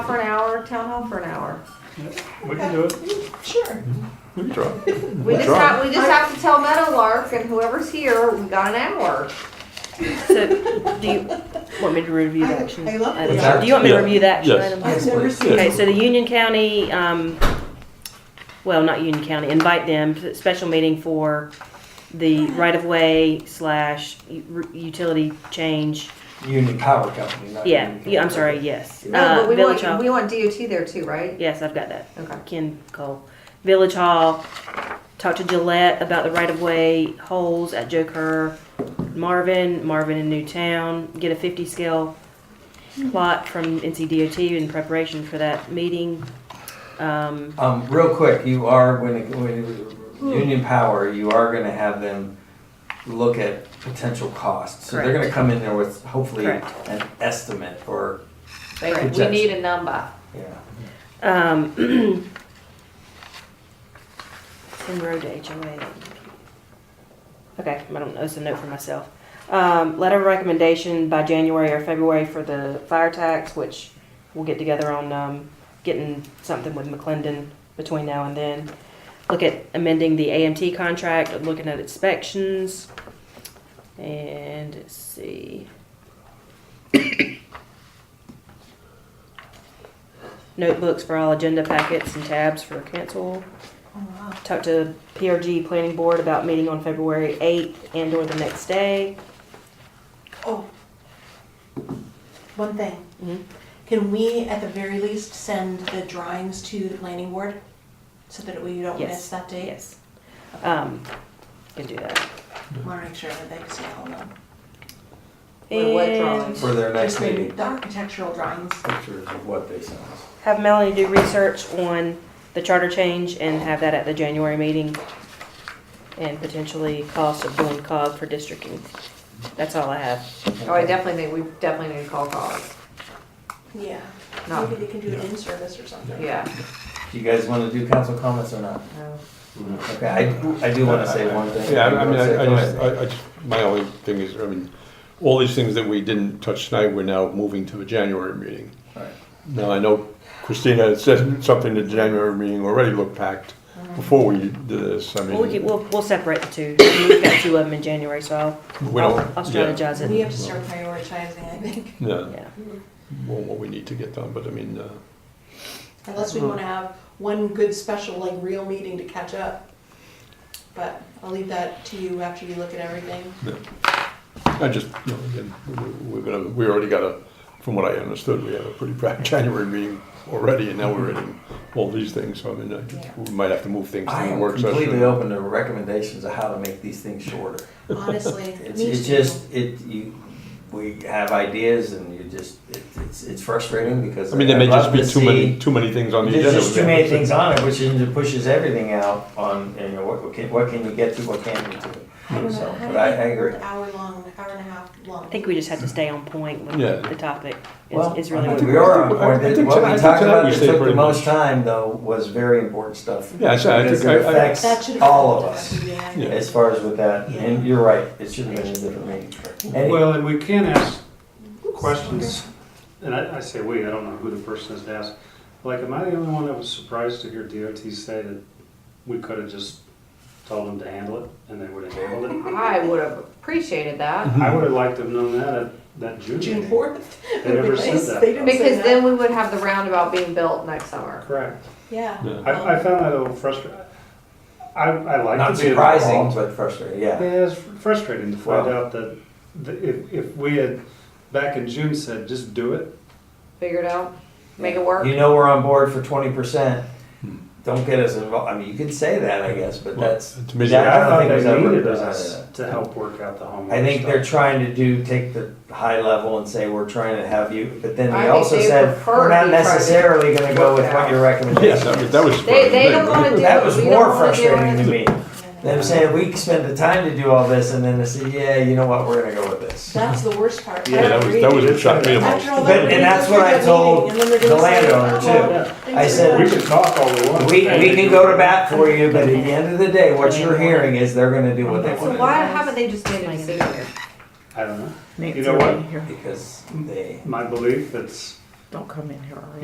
hour, town hall for an hour. We can do it. Sure. We can try. We just Try. have, we just have to tell Meadowlark and whoever's here, we got an hour. Uh, So, do you want me to review the action? I love items? that. Do you want me to Yeah. review the action Yes. items? I've never seen Okay, it. so the Union County, um, well, not Union County, invite them, to a special meeting for the right-of-way slash u- utility change. Union Power Company. Not Yeah, Union yeah, I'm Construction. sorry, yes. No, Uh, but we Village want, we Hall, want DOT there too, right? yes, I've got that. Okay. Ken Cole. Village Hall, talk to Gillette about the right-of-way holes at Joe Kerr, Marvin, Marvin in Newtown, get a 50 scale plot from NCDOT in preparation for that meeting. Um, Um, real quick, you are when it, when it, Union Power, you are going to have them look at potential costs. So they're going to Correct. come in there with hopefully Correct. an estimate or They- We Objection. need a number. yeah. um, Road HOA. Okay, I don't know, it's a note for myself. Um, letter of recommendation by January or February for the fire tax, which we'll get together on, um, getting something with McClendon between now and then. Look at amending the AMT contract, looking at inspections, and let's see. Notebooks for all agenda packets and tabs for cancel. oh, Talk to PRG Planning Board about meeting on February eighth and or the next day. Oh, one thing. Mhm. Can we, at the very least, send the drawings to the planning board so that we don't Yes. miss that date? Yes. Um, can do that. Want to make sure that they see all of them. Or what And drawings? For their next Just the- meeting, The architectural drawings. pictures of what they sent us. have Melanie do research on the charter change and have that at the January meeting. And potentially cost of doing cog for districting. That's all I have. Oh, I definitely think, we definitely need to call calls. Yeah. No. Maybe they can do it in service or something. Yeah. Do you guys want to do council comments or not? no. Okay, I, I do want to say one thing. Yeah, I I mean, Say- I I go just, ahead. I, I just, my only thing is, I mean, all these things that we didn't touch tonight, we're now moving to the January meeting. All right. Now, I know Christina had said something, the January meeting already looked packed before we did this, I mean. Mm-hmm. We'll, get- we'll, we'll separate the two. We've got two of them in January, so I'll, we I'll don't- I'll yeah, strategize We it. have to start prioritizing, I think, Yeah, Yeah. well, what we need to get done, but I mean, uh, unless we want to have one good special, like, real meeting to catch up. But I'll leave that to you after you look at everything. no. I just, you know, again, we- we're gonna, we already got a, from what I understood, we have a pretty packed January meeting already, and now we're adding all these things, so I mean, I just- we might have to move things I to the am work session. completely open to recommendations of how to make these things shorter. Honestly, It's, me it's too. just, it, you, we have ideas and you just, it- it's, it's frustrating because. I mean, there may I'd just love be to too many, see- too many things on the agenda. There's just too we many have to- things on it, which is- pushes everything out on, you know, what can, what can you get to, what can't you I do? don't know, So, how but I, I do you agree. make an hour long, hour and a half long? I think we just have to stay on point with Yeah. the topic. Well, It's, it's I really. mean, what we are, on I point. think- I what think we talked tonight about you that said took the pretty most much. time though was very important stuff. Yeah, I said- I Because think it I- I- That affects should have. all of been us. done, yeah. Yeah. As far as with that, Yeah. and you're right, it should have been a different meeting. Any- Well, and we can ask questions, and I, I say we, I don't know who the person is to ask. Like, am I the only one that was surprised to hear DOT say that we could have just told them to handle it and they would have handled it? I would have appreciated that, I would have liked to have known that at that June June meeting. fourth. They never said that. They didn't say because that. then we would have the roundabout being built next summer. Correct. Yeah. Um, Yeah. I, I found that a little frustrating. I, I like Not to be surprising, involved. but frustrating, yeah. Yeah, it's frustrating to find Well- out that, that if, if we had, back in June said, just do it, Figure it out, make it work. You know we're on board for twenty percent. Don't get us involved. I mean, you could say that, I guess, but Hmm. Well, that's. to me, that- I don't thought think was they ever needed presented. us to help work out the homework I think they're stuff. trying to do, take the high level and say, we're trying to have you, but then I they think also they said, prefer we're not to try to necessarily gonna go with what your Yes, recommendation I mean, is. that was. They, they don't wanna do That it, was we more don't wanna do frustrating to it. me. Them saying, we spend the time to do all this, and then they say, yeah, you know what, we're gonna go with this. That's the worst part. Yeah, that was, that was what shocked me the most. After all But- that, and that's what I told the landowner, too. I said- We can talk all we want. We, we can go to bat for you, but at the end of the day, what you're hearing is they're gonna do what they So wanna do. why haven't they just made a decision? I don't know. You know what? Because they. My belief that's Don't come in here already.